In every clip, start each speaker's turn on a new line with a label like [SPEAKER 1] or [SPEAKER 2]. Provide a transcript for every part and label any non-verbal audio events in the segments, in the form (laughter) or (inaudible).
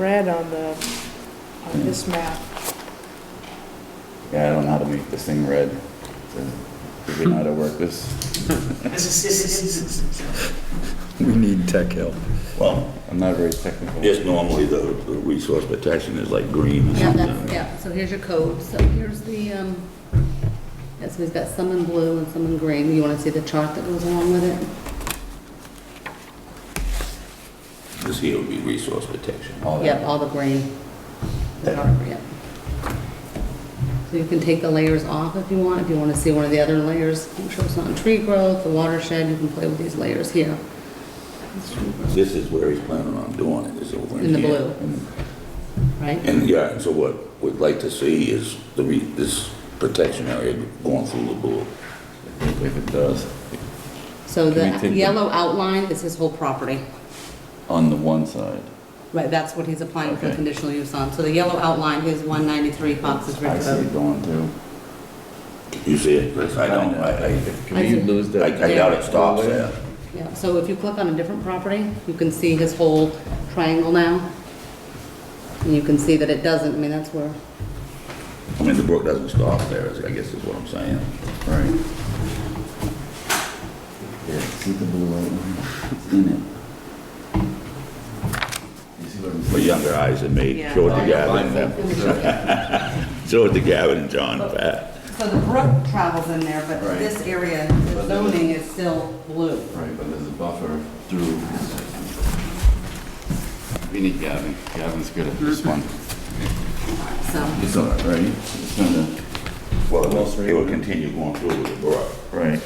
[SPEAKER 1] red on the, on this map.
[SPEAKER 2] Yeah, I don't know how to make this thing red. Do we know how to work this?
[SPEAKER 3] We need tech help.
[SPEAKER 2] Well, I'm not very technical.
[SPEAKER 4] Yes, normally the, the resource protection is like green or
[SPEAKER 5] Yeah,
[SPEAKER 4] something.
[SPEAKER 5] that's, yeah, so here's your code, so here's the, um, yeah, so we've got some in blue and some in green, you wanna see the chart that goes along with it?
[SPEAKER 4] This here would be resource protection.
[SPEAKER 2] All
[SPEAKER 5] Yep,
[SPEAKER 2] that.
[SPEAKER 5] all the green, the dark, yep. So you can take the layers off if you want, if you wanna see one of the other layers, make sure it's not in tree growth, the watershed, you can play with these layers here,
[SPEAKER 4] This is where he's planning on doing it, is over in
[SPEAKER 5] in the
[SPEAKER 4] here.
[SPEAKER 5] blue, right?
[SPEAKER 4] And, yeah, so what we'd like to see is the re, this protection area going through the blue.
[SPEAKER 2] If it does,
[SPEAKER 5] So
[SPEAKER 2] Can we take
[SPEAKER 5] the
[SPEAKER 2] the-
[SPEAKER 5] yellow outline is his whole property.
[SPEAKER 2] on the one side.
[SPEAKER 5] Right, that's what he's applying for
[SPEAKER 2] Okay.
[SPEAKER 5] conditional use on. So the yellow outline is 193 Fox's
[SPEAKER 2] I
[SPEAKER 5] Ridge
[SPEAKER 2] see it
[SPEAKER 5] Road.
[SPEAKER 2] going through.
[SPEAKER 4] You see it, Chris? I don't, I,
[SPEAKER 2] Can you lose
[SPEAKER 4] I,
[SPEAKER 2] that?
[SPEAKER 4] I doubt it stops there.
[SPEAKER 5] Yeah, so if you click on a different property, you can see his whole triangle now. And you can see that it doesn't, I mean, that's where,
[SPEAKER 4] I mean, the brook doesn't stop there, is- I guess is what I'm saying.
[SPEAKER 2] Right. Yeah, see the blue outline? It's in it. You see what I'm
[SPEAKER 4] For
[SPEAKER 2] saying? Oh,
[SPEAKER 4] younger eyes, it may, show it to Gavin, and- show it to Gavin and John,
[SPEAKER 5] Oh.
[SPEAKER 4] Pat.
[SPEAKER 5] so the brook travels in there, but
[SPEAKER 2] Right.
[SPEAKER 5] this area, the zoning is still blue.
[SPEAKER 2] Right, but there's a buffer through. We need Gavin. Gavin's good at this one.
[SPEAKER 5] So,
[SPEAKER 2] It's all right, right? It's not a.
[SPEAKER 4] Well, it will- it will continue going through with the brook
[SPEAKER 2] Right.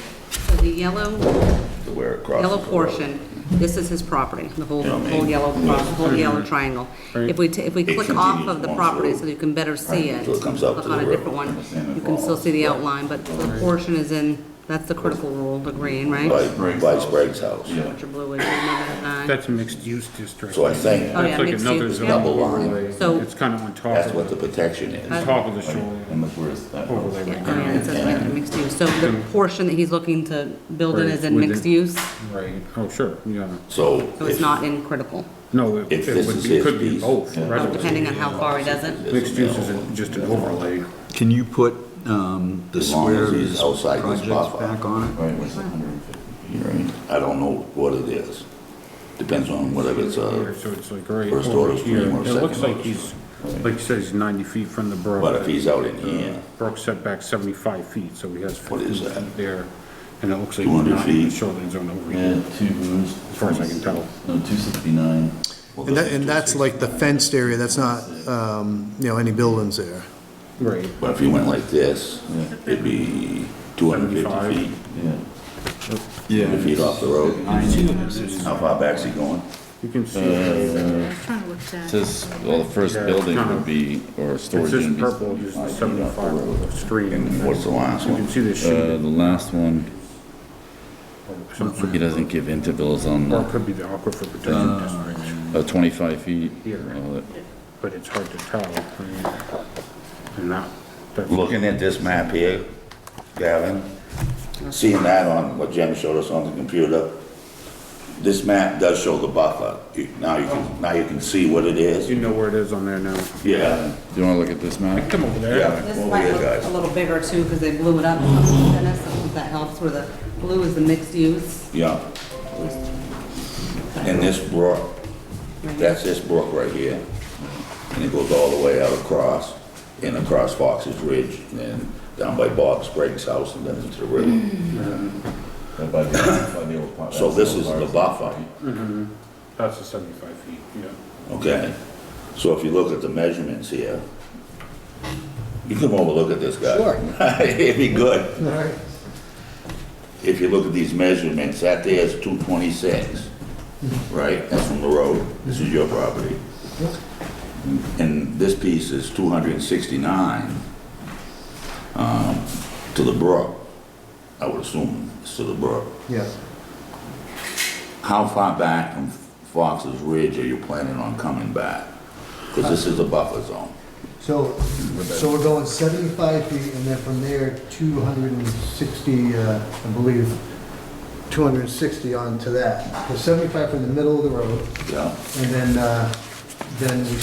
[SPEAKER 5] so the yellow,
[SPEAKER 4] to where it crosses.
[SPEAKER 5] yellow
[SPEAKER 4] the road.
[SPEAKER 5] portion, this is his property, the whole,
[SPEAKER 4] You know what I
[SPEAKER 5] whole
[SPEAKER 4] mean?
[SPEAKER 5] yellow, pro- whole yellow triangle. If we, ta- if we
[SPEAKER 4] It
[SPEAKER 5] click off
[SPEAKER 4] continues
[SPEAKER 5] of the
[SPEAKER 4] on
[SPEAKER 5] property
[SPEAKER 4] through.
[SPEAKER 5] so you can better see
[SPEAKER 4] Right,
[SPEAKER 5] it,
[SPEAKER 4] so it
[SPEAKER 5] click
[SPEAKER 4] comes up to
[SPEAKER 5] on a
[SPEAKER 4] the river.
[SPEAKER 5] different one, you can still see the outline, but the portion is in, that's the critical rule, the green, right?
[SPEAKER 4] By, by Sprague's house.
[SPEAKER 5] Which are blue is in number nine.
[SPEAKER 6] That's a mixed-use district.
[SPEAKER 4] So I think
[SPEAKER 5] Oh, yeah,
[SPEAKER 6] That's like
[SPEAKER 5] mixed
[SPEAKER 6] another
[SPEAKER 5] use,
[SPEAKER 6] zone.
[SPEAKER 5] yeah.
[SPEAKER 4] double line,
[SPEAKER 5] So,
[SPEAKER 6] It's kind of on top
[SPEAKER 4] that's
[SPEAKER 6] of,
[SPEAKER 4] what the protection is.
[SPEAKER 6] top of the shoreline
[SPEAKER 2] And look where it's that.
[SPEAKER 6] overlay
[SPEAKER 5] yeah,
[SPEAKER 6] right
[SPEAKER 5] oh, yeah,
[SPEAKER 6] now.
[SPEAKER 5] it says right there, mixed use. So the portion that he's looking to build in
[SPEAKER 6] Right,
[SPEAKER 5] is in
[SPEAKER 6] within-
[SPEAKER 5] mixed use,
[SPEAKER 6] Right, oh, sure, yeah.
[SPEAKER 4] So.
[SPEAKER 5] so it's
[SPEAKER 4] if-
[SPEAKER 5] not in critical,
[SPEAKER 6] No, it
[SPEAKER 4] If
[SPEAKER 6] it
[SPEAKER 4] this
[SPEAKER 6] would
[SPEAKER 4] is
[SPEAKER 6] be,
[SPEAKER 4] his
[SPEAKER 6] could be
[SPEAKER 4] piece,
[SPEAKER 6] both.
[SPEAKER 5] Oh,
[SPEAKER 6] residency.
[SPEAKER 5] depending on how far he does it.
[SPEAKER 6] Mixed use is a- just an overlay.
[SPEAKER 3] Can you put um, the
[SPEAKER 4] As long as
[SPEAKER 3] square of
[SPEAKER 4] he's
[SPEAKER 3] his
[SPEAKER 4] outside this
[SPEAKER 3] projects
[SPEAKER 4] buffer.
[SPEAKER 3] back on
[SPEAKER 2] Right, where's the hundred and fifty feet, right?
[SPEAKER 4] I don't know what it is. Depends on whether it's uh,
[SPEAKER 6] Here,
[SPEAKER 4] a,
[SPEAKER 6] So it's like right
[SPEAKER 4] First order
[SPEAKER 6] over
[SPEAKER 4] stream
[SPEAKER 6] here.
[SPEAKER 4] or
[SPEAKER 6] It looks
[SPEAKER 4] second
[SPEAKER 6] like
[SPEAKER 4] order
[SPEAKER 6] he's, like you said, he's 90 feet from the brook. Uh,
[SPEAKER 4] but if he's out in here,
[SPEAKER 6] Brook setback 75 feet, so he has
[SPEAKER 4] What is
[SPEAKER 6] 15
[SPEAKER 4] that?
[SPEAKER 6] feet there. And it looks like
[SPEAKER 4] 200
[SPEAKER 6] he's not in the
[SPEAKER 4] feet?
[SPEAKER 6] shoreline zone over
[SPEAKER 2] Yeah,
[SPEAKER 6] here.
[SPEAKER 2] two rooms. As
[SPEAKER 6] far as I can tell.
[SPEAKER 2] No, two sixty-nine.
[SPEAKER 7] And that, and that's like the fenced area, that's not, um, you know, any buildings there.
[SPEAKER 6] Right.
[SPEAKER 4] but if he went like this, it'd be 250 feet,
[SPEAKER 6] 75.
[SPEAKER 2] Yeah.
[SPEAKER 4] 200 feet off the road. How far back's he going?
[SPEAKER 6] You can see,
[SPEAKER 4] Uh,
[SPEAKER 6] it.
[SPEAKER 1] I was trying to look at that.
[SPEAKER 2] Says, well, the first
[SPEAKER 6] Yeah. Uh-huh.
[SPEAKER 2] building would be, or
[SPEAKER 6] it's
[SPEAKER 2] storage
[SPEAKER 6] just
[SPEAKER 2] unit. would be
[SPEAKER 6] purple, just the
[SPEAKER 2] 75 feet off
[SPEAKER 6] 75 of the stream.
[SPEAKER 4] uh, And what's the last
[SPEAKER 6] You can
[SPEAKER 4] one?
[SPEAKER 6] see the
[SPEAKER 2] the road. Uh,
[SPEAKER 6] shaded
[SPEAKER 2] the last one,
[SPEAKER 6] some sort
[SPEAKER 2] he doesn't give intervals on
[SPEAKER 6] Or it
[SPEAKER 2] the,
[SPEAKER 6] could be the aquifer protection district,
[SPEAKER 2] uh, twenty-five feet. Uh,
[SPEAKER 6] Here.
[SPEAKER 2] Well, it-
[SPEAKER 6] but it's hard to tell. I mean, And that, that's,
[SPEAKER 4] Looking at this map here, Gavin, seeing that on what Jim showed us on the computer, this map does show the buffer. You- Now you can, now you can see what it is.
[SPEAKER 6] you know where it is on there now.
[SPEAKER 4] Yeah,
[SPEAKER 2] Do you wanna look at this map?
[SPEAKER 6] Come over there.
[SPEAKER 4] yeah.
[SPEAKER 5] This
[SPEAKER 4] Over
[SPEAKER 5] might
[SPEAKER 4] here,
[SPEAKER 5] look
[SPEAKER 4] guys.
[SPEAKER 5] a little bigger too, because they blew it up, Dennis, I hope that helps, where the blue is the mixed use.
[SPEAKER 4] Yeah. And this brook, that's this brook right here. And it goes all the way out across, and across Fox's Ridge, and then down by Bob Sprague's house, and then into the river.
[SPEAKER 2] Uh, by the- by the old part,
[SPEAKER 4] So
[SPEAKER 2] that's
[SPEAKER 4] this
[SPEAKER 2] old
[SPEAKER 4] is the
[SPEAKER 2] part.
[SPEAKER 4] buffer,
[SPEAKER 6] That's the 75 feet, yeah.
[SPEAKER 4] okay? So if you look at the measurements here, you come over, look at this guy.
[SPEAKER 7] Sure.
[SPEAKER 4] (laughs) It'd be good. If you look at these measurements, that there is 226, right? That's from the road. This is your property. And this piece is 269 um, to the brook, I would assume, it's to the brook.
[SPEAKER 7] Yeah.
[SPEAKER 4] How far back from Fox's Ridge are you planning on coming back? Because this is a buffer zone.
[SPEAKER 8] So, so we're going 75 feet, and then from there, 260, uh, I believe, 260 onto that. So 75 from the middle of the road,
[SPEAKER 4] Yeah.
[SPEAKER 8] and then, uh, then we